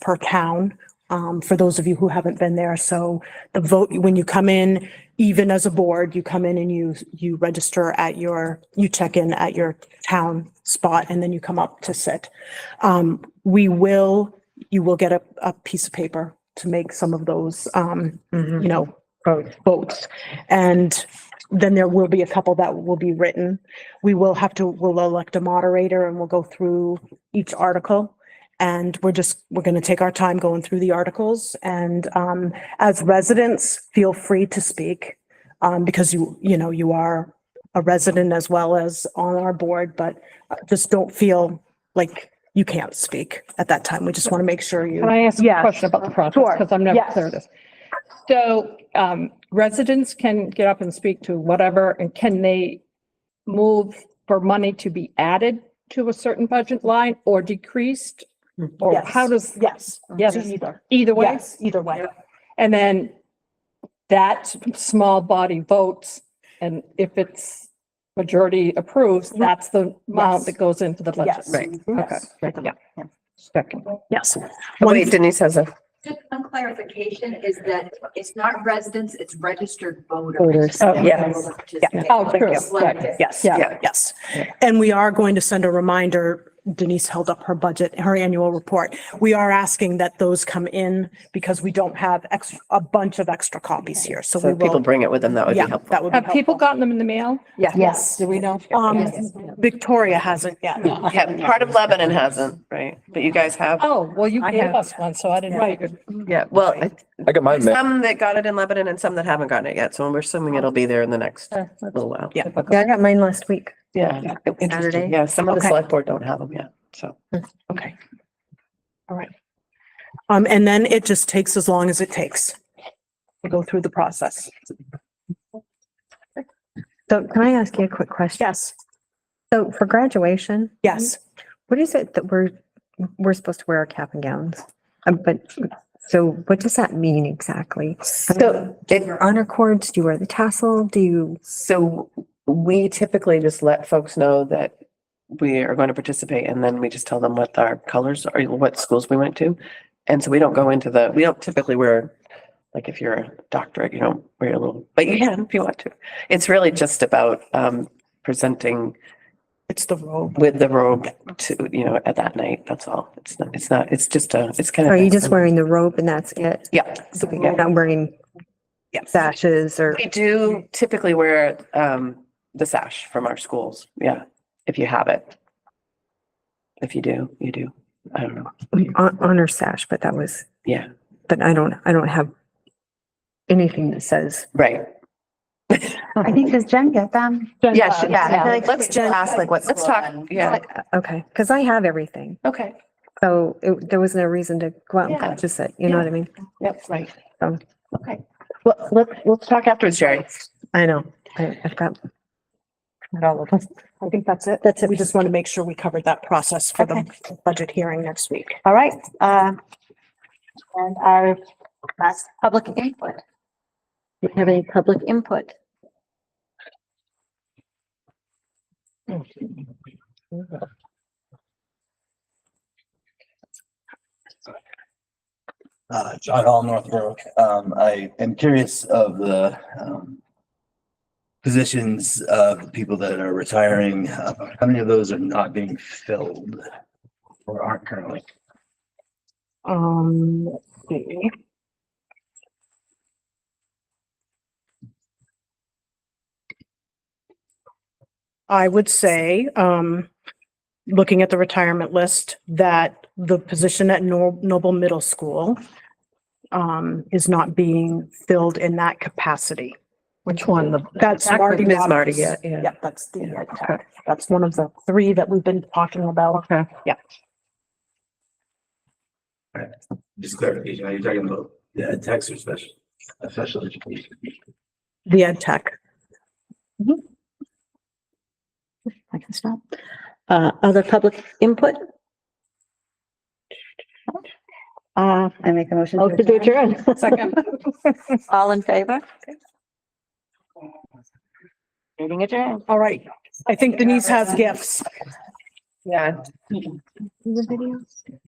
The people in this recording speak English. per town, um, for those of you who haven't been there. So the vote, when you come in, even as a board, you come in and you, you register at your, you check in at your town spot and then you come up to sit. Um, we will, you will get a, a piece of paper to make some of those, um, you know, votes. And then there will be a couple that will be written. We will have to, we'll elect a moderator and we'll go through each article. And we're just, we're going to take our time going through the articles. And um, as residents, feel free to speak um, because you, you know, you are a resident as well as on our board, but uh, just don't feel like you can't speak at that time. We just want to make sure you. Can I ask a Yes. question about the process? Sure. Because I'm never Yes. clear of this. So um, residents can get up and speak to whatever, and can they move for money to be added to a certain budget line or decreased? Or Yes. how does, Yes. yes, Either. either way? Yes, either way. And then that small body votes, and if it's majority approves, that's the amount Mm-hmm. Yes. that goes into the budget. Yes. Right. Okay. Yeah. Second. Yes. One- Wait, Denise has a. Just one clarification is that it's not residents, it's registered voters. Voters, that yes. will participate. Oh, true. Selected. Yes, Yeah. yeah, yes. And we are going to send a reminder, Denise held up her budget, her annual report. We are asking that those come in because we don't have ex, a bunch of extra copies here, so we So people will. bring it with them, that would be Yeah, helpful. that would be Have people helpful. gotten them in the mail? Yes. Do we know? Um, Victoria hasn't yet. Yeah, part of Lebanon hasn't, right? But you guys have, Oh, well, you I gave have- us one, so I didn't. Right. yeah, well, I- I got mine. ma- some that got it in Lebanon and some that haven't gotten it yet, so we're assuming it'll be there in the next little while. Yeah. Yeah, I got mine last week. Yeah. Saturday. Yeah, some of the Okay. select board don't have them yet, so. Okay. Um, and then it just takes as long as it takes to go through the process. So can I ask you a quick question? Yes, So for graduation, yes. what is it that we're, we're supposed to wear our cap and gowns? Um, But, so what does that mean exactly? So Do you wear honor cords? Do you wear the tassel? Do you? So we typically just let folks know that we are going to participate and then we just tell them what our colors are, what schools we went to. And so we don't go into the, we don't typically wear, like if you're a doctorate, you don't wear a little, but you can if you want to. It's really just about um presenting It's the robe. with the robe to, you know, at that night, that's all. It's not, it's not, it's just a, it's kind of. Oh, Are you just wearing the robe and that's it? Yeah. So You're not wearing Yeah. sashes or, We do typically wear um the sash from our schools, yeah, if you have it. If you do, you do. I don't know. hon- honor sash, but that was, Yeah, but I don't, I don't have anything that says. right. I think, does Jen get them? Yeah, she- Yeah, I feel like Let's we should ask like what Let's school talk, and- yeah, Like, uh, Okay, because I have everything. okay, So it, there was no reason to go out and Yeah. purchase it. You know what I mean? yep, right. Um, Okay, well, let's, let's talk afterwards, Jerry. I know. I, I've got. I think that's it. That's it. We just want to make sure we covered that process for the budget hearing next week. All right, um, and our last public input. Do we have any public input? Uh, John Hall, Northbrook. Um, I am curious of the, um, positions of people that are retiring. Uh, How many of those are not being filled or aren't currently? Um, let's see. I would say, um, looking at the retirement list, that the position at Nor- Noble Middle School um, is not being filled in that capacity. Which one? The- That's Marty. Ms. Marty, Roberts. yeah, yeah. Yep, that's the, ed tech. that's one of the three that we've been talking about. Okay. Just clarification, are you talking about the ed techs or special, uh, special education? The ed tech. I can stop. Uh, other public input? Uh, I make a motion. motion to adjourn. Second. All in favor? Meeting adjourned. All right. I think Denise has gifts. Yeah,